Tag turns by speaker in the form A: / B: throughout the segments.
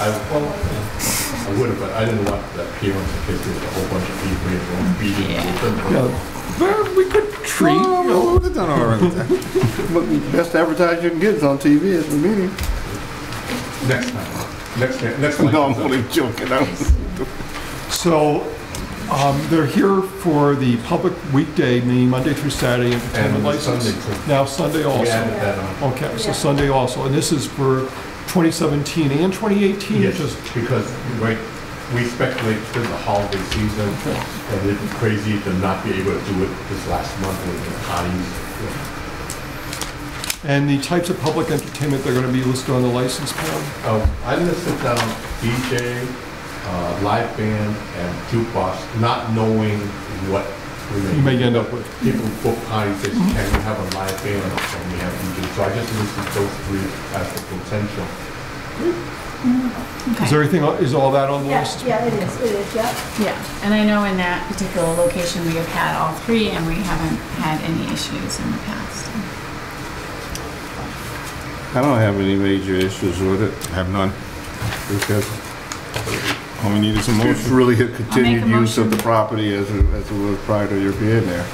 A: I, well, I would have, but I didn't want the appearance in case there was a whole bunch of people in the room beating.
B: Yeah.
C: Well, we could treat.
D: Well, well, we've done all right. But the best advertising you can get is on TV at the meeting.
A: Next time, next, time- next time.
D: No, I'm only joking. I was-
C: So um, they're here for the public weekday, meaning Monday through Saturday entertainment
A: And
C: license.
A: Sunday too.
C: Now Sunday
A: We
C: also.
A: added that on.
C: Okay, so Sunday also. And this is for 2017 and 2018?
A: Yes,
C: Just-
A: because, right, we speculate through the holiday season, and it'd be crazy to not be able to do it this last month with the parties.
C: And the types of public entertainment they're going to be listed on the license plan?
A: Um, I listed down DJ, uh, live band, and jukebox, not knowing what we may.
C: You may end up with. Mm-hmm.
A: People book parties, they say, can we have a live band, or can we have DJ? So I just listed those three as the potential.
C: Is there anything, is all that on the license?
E: Yeah, yeah, it is, it is, yeah.
B: Yeah, and I know in that particular location, we have had all three, and we haven't had any issues in the past.
D: I don't have any major issues with it. Have none. Because
F: All we need is a
D: it's
F: motion.
D: really a continued
B: a
D: use of
B: motion.
D: the property as, it- as it was prior to your being there.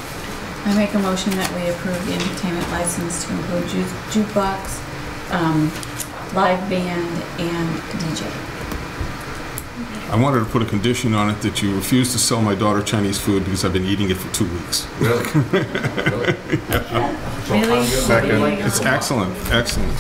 B: I make a motion that we approve the entertainment license to include ju- jukebox, um, live band, and DJ.
F: I wanted to put a condition on it that you refuse to sell my daughter Chinese food because I've been eating it for two weeks.
A: Really? Really? So I'm
B: Really?
A: gonna-
D: Second.
F: It's excellent, excellent.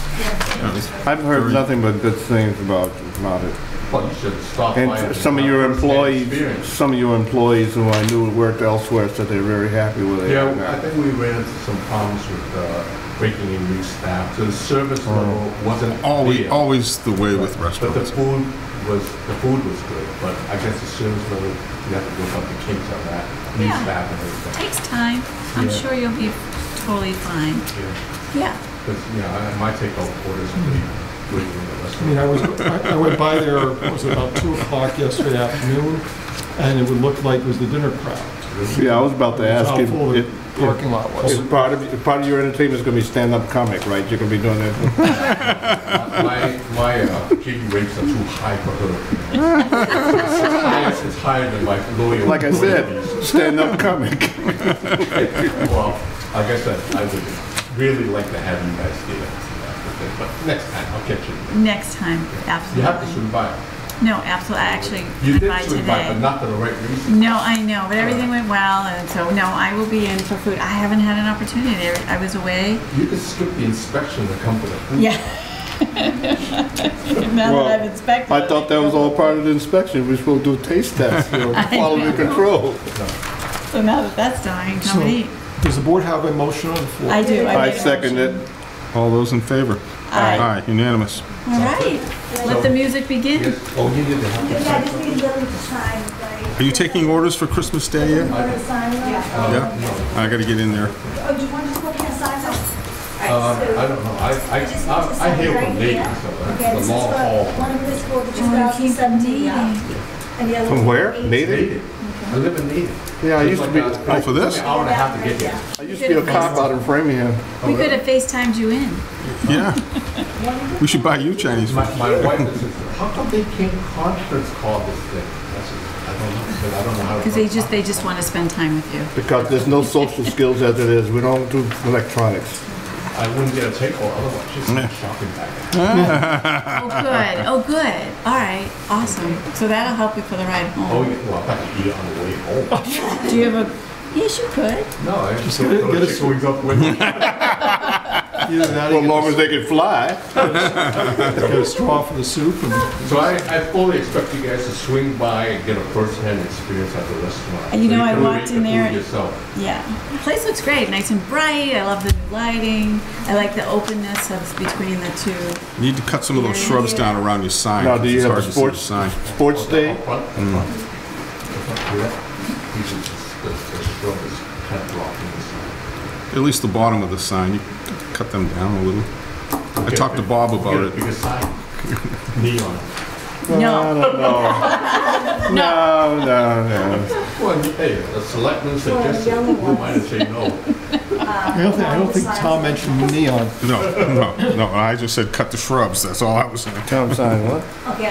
D: I've heard
F: Very-
D: nothing but good things about, about it.
A: But you should stop by.
D: And some of your
A: have
D: employees,
A: experience.
D: some of your employees who I knew worked elsewhere said they're very happy with it.
A: Yeah, I think we ran into some problems with uh, breaking in new staff. So the service
C: Oh.
A: level wasn't
F: Always,
A: there.
F: always the way with
A: But the
F: restaurants.
A: food was, the food was good, but I guess the service level, you have to go up the kinks on that, new
B: Yeah.
A: staff and everything.
B: Takes time. I'm
A: Yeah.
B: sure you'll be totally fine. Yeah.
A: Because, you know, I- my takeout orders were good in the
C: I mean,
A: restaurant.
C: I was, I I went by there, it was about 2 o'clock yesterday afternoon, and it would look like it was the dinner crowd.
D: Yeah, I was about to ask
C: How
D: if,
C: full the
D: if- if-
C: parking lot was.
D: if part of, if part of your entertainment's gonna be stand-up comic, right? You're gonna be doing that?
A: My, my uh, gig rates are too high for her. you know. It's higher- It's higher than like lawyer.
D: Like I
A: employees.
D: said, stand-up comic.
A: Well, like I said, I would really like to have you guys here, but next time, I'll catch you.
B: Next time,
A: You have to
B: absolutely.
A: swing by.
B: No, absolutely, I actually
A: You
B: went
A: did
B: by
A: swing by, but
B: today.
A: not for the right reason.
B: No, I know, but everything went well, and so, no, I will be in for food. I haven't had an opportunity. I was away.
A: You could skip the inspection of the company.
B: Yeah. now
D: Well,
B: that I've inspected.
D: I thought that was all part of the inspection, we're supposed to do a taste test, you know, quality control.
B: So now that that's done, I can come
C: So-
B: and eat.
C: Does the board have a motion on the floor?
B: I do.
D: I
B: made a
D: second it.
B: motion.
F: All those in favor?
B: Aye.
F: Aye, unanimous.
B: All right. Let the music begin.
A: Yes, oh, you did the
E: Yeah,
A: help.
E: I just need them to sign, right?
F: Are you taking orders for Christmas Day yet?
E: Want to sign them?
F: Yeah? I gotta get in there.
E: Oh, do you want to go up and sign them?
A: Uh,
E: Alright, so-
A: I don't know, I, I,
E: I just
A: I-
E: need to
A: I
E: sign
A: hear
E: right
A: from Nate,
E: here.
A: so
E: Okay,
A: that's
E: this
A: the
E: is
A: long
E: for,
A: haul.
E: one of this for the
B: Oh, you keep
E: 2017, yeah.
B: meeting.
E: And the other
D: From
E: one
D: where?
E: 18.
D: Native?
A: Native, I live in Native.
D: Yeah, I used to be,
F: Oh, for this?
A: An hour and a half to get here.
D: I used to be a cop out in Framingham.
B: We could have FaceTimed you in.
F: Yeah. We should buy you Chinese food.
A: My, my wife is, how come they can't conference call this thing? I said, I don't know, because I don't know how. to
B: Because they
A: work.
B: just, they just want to spend time with you.
D: Because there's no social skills as it is, we don't do electronics.
A: I wouldn't get a takeover, otherwise she's
F: Yeah.
A: shopping back.
B: Oh, good. Oh, good. All right. Awesome. So that'll help you for the ride
A: Oh,
B: home.
A: yeah, well, I could eat it on the way home.
B: Do you have a, yes, you could.
A: No, I just
C: get
A: get
C: a- get a
A: those chicken wings up with.
C: Either that or
D: As
C: you
D: long as they can fly.
C: get a straw for the soup and
A: So I, I fully expect you guys to swing by and get a first-hand experience at the restaurant.
B: And you
A: So
B: know, I
A: can
B: walked
A: make the
B: in
A: food
B: there-
A: Yourself.
B: Yeah. The place looks great. Nice and bright. I love the new lighting. I like the openness of between the two.
F: Need to cut some of those shrubs down around your sign.
D: Now, do you
F: It's
D: have a
F: hard to see the
D: sports,
F: sign.
D: sports day?
A: Up front, up front. Up front, yeah. You should just- the- the shrub is kind of blocking the sun.
F: At least the bottom of the sign, you cut them down a little. I talked to Bob
A: Get
F: about
A: a
F: it.
A: bigger sign. Neon.
D: I don't know. No, no, no.
A: Well, hey, the selectmen suggested,
E: yellow
A: who
E: ones.
A: might have said no?
C: I don't think, I don't think Tom mentioned neon.
F: No, no, no, I just said cut the shrubs, that's all I was saying.
D: Tom signed what?
E: Okay,